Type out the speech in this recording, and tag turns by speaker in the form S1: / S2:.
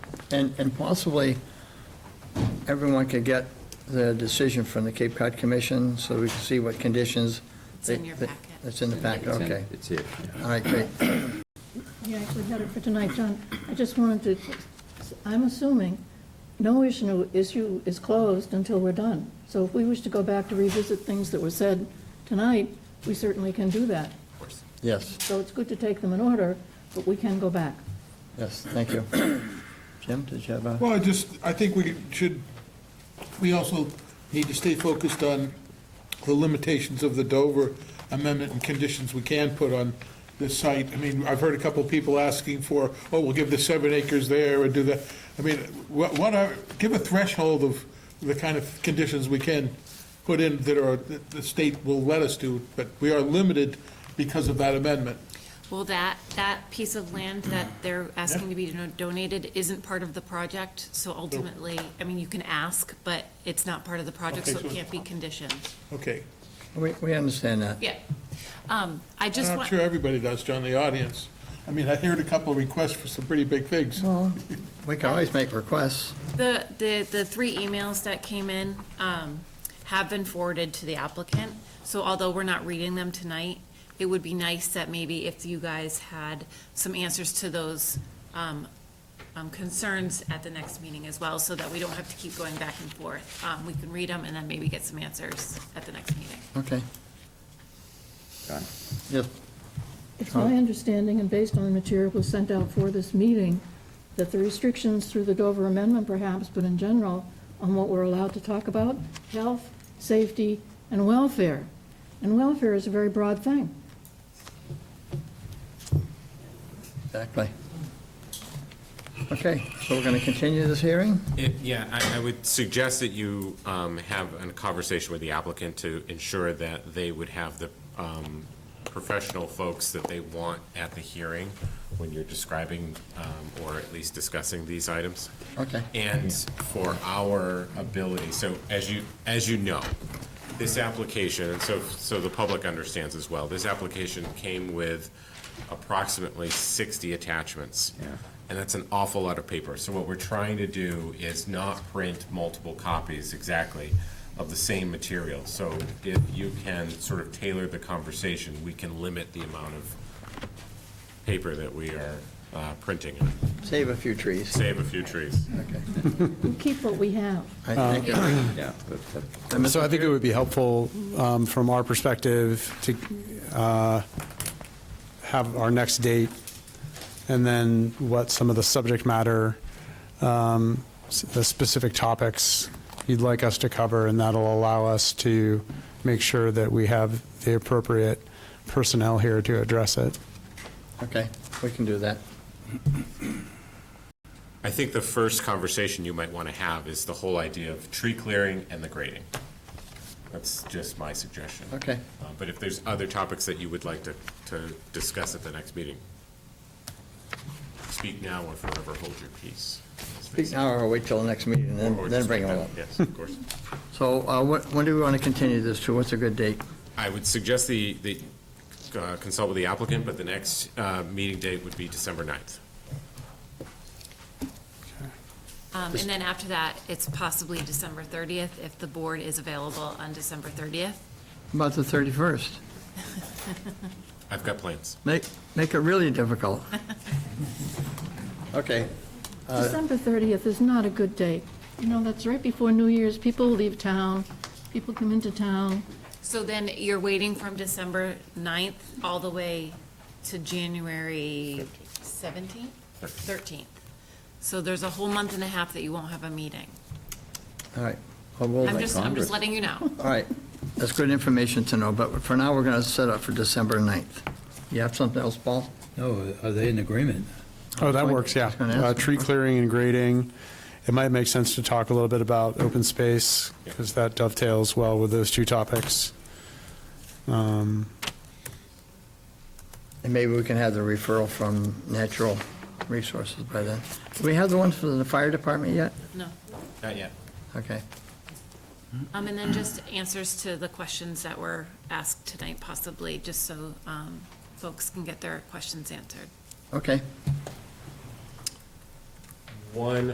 S1: and, and possibly everyone could get the decision from the Cape Cod Commission, so we can see what conditions.
S2: It's in
S1: they-
S2: your
S1: they-
S2: packet.
S1: It's in the packet,
S3: It's in-
S1: okay.
S3: It's here.
S1: All right, great.
S4: You actually had it for tonight, John. I just wanted to, I'm assuming no issue, issue is closed until we're done. So if we wish to go back to revisit things that were said tonight, we certainly can do that.
S1: Yes,
S4: So it's good to take them in order, but we can go back.
S1: yes, thank you. Jim, did you have a?
S5: Well, I just, I think we should, we also need to stay focused on the limitations of the Dover amendment and conditions we can put on this site. I mean, I've heard a couple of people asking for, oh, we'll give the seven acres there or do that. I mean, what, what are, give a threshold of the kind of conditions we can put in that are, that the state will let us do, but we are limited because of that amendment.
S2: Well, that, that piece of land that they're asking to be dono- donated isn't part of the project, so ultimately, I mean, you can ask, but it's not part of the project,
S5: Okay,
S2: so it
S5: so-
S2: can't be conditioned.
S5: Okay.
S1: We, we understand that.
S2: Yeah. Um, I just
S5: I'm not
S2: want,
S5: sure everybody does, John, the audience. I mean, I heard a couple of requests for some pretty big things.
S1: Well, we can always make requests.
S2: the, the, the three emails that came in, um, have been forwarded to the applicant. So although we're not reading them tonight, it would be nice that maybe if you guys had some answers to those, um, um, concerns at the next meeting as well, so that we don't have to keep going back and forth. Um, we can read them and then maybe get some answers at the next meeting.
S1: Okay,
S3: John.
S1: yes,
S4: It's my understanding, and based on the material was sent out for this meeting, that the restrictions through the Dover Amendment perhaps, but in general, on what we're allowed to talk about, health, safety, and welfare. And welfare is a very broad thing.
S1: exactly. Okay, so we're going to continue this hearing?
S6: It- Yeah, I, I would suggest that you um, have a conversation with the applicant to ensure that they would have the um, professional folks that they want at the hearing when you're describing um, or at least discussing these items.
S1: Okay.
S6: And for our ability, so as you, as you know, this application, and so, so the public understands as well, this application came with approximately 60 attachments.
S3: Yeah.
S6: And that's an awful lot of paper. So what we're trying to do is not print multiple copies exactly of the same material. So if you can sort of tailor the conversation, we can limit the amount of paper that we are uh, printing and
S1: Save a few trees.
S6: save a few trees.
S4: We keep what we have.
S1: I think Um, it-
S3: Yeah. that- that-
S7: So I think it would be helpful um, from our perspective to uh, have our next date and then what some of the subject matter, um, s- the specific topics you'd like us to cover, and that'll allow us to make sure that we have the appropriate personnel here to address it.
S1: Okay, we can do that.
S6: I think the first conversation you might want to have is the whole idea of tree clearing and the grading. That's just my suggestion.
S1: Okay.
S6: Uh, But if there's other topics that you would like to, to discuss at the next meeting, speak now or forever hold your peace. as they
S1: Speak
S6: say.
S1: now or wait till the next meeting, and
S6: Or
S1: then, then
S6: just
S1: bring
S6: speak
S1: them
S6: now.
S1: up.
S6: Yes, of course.
S1: So uh, when, when do we want to continue this to? What's a good date?
S6: I would suggest the, the, uh, consult with the applicant, but the next uh, meeting date would be December 9th.
S2: Um, and then after that, it's possibly December thirtieth, if the board is available on December thirtieth.
S1: About the 31st?
S6: I've got plans.
S1: Make, make it really difficult. Okay,
S4: December 30th is not a good date. You know, that's right before New Year's. People leave town, people come into town.
S2: So then you're waiting from December 9th all the way to January 17th? 13th. So there's a whole month and a half that you won't have a meeting.
S1: all right. Well, we'll
S2: I'm
S1: wait.
S2: just, I'm
S3: Congress.
S2: just letting you know.
S1: All right, that's good information to know, but for now, we're going to set up for December 9th. You have something else, Paul?
S8: No, are they in agreement?
S7: Oh, that
S1: Fine.
S7: works, yeah.
S1: Just gonna ask.
S7: Uh, Tree clearing and grading. It might make sense to talk a little bit about open space because that dovetails well with those two topics. Um,
S1: And maybe we can have the referral from Natural Resources by then. Do we have the ones for the fire department yet?
S2: No.
S6: Not yet.
S1: Okay,
S2: Um, and then just answers to the questions that were asked tonight possibly, just so, um, folks can get their questions answered.
S1: okay.
S6: One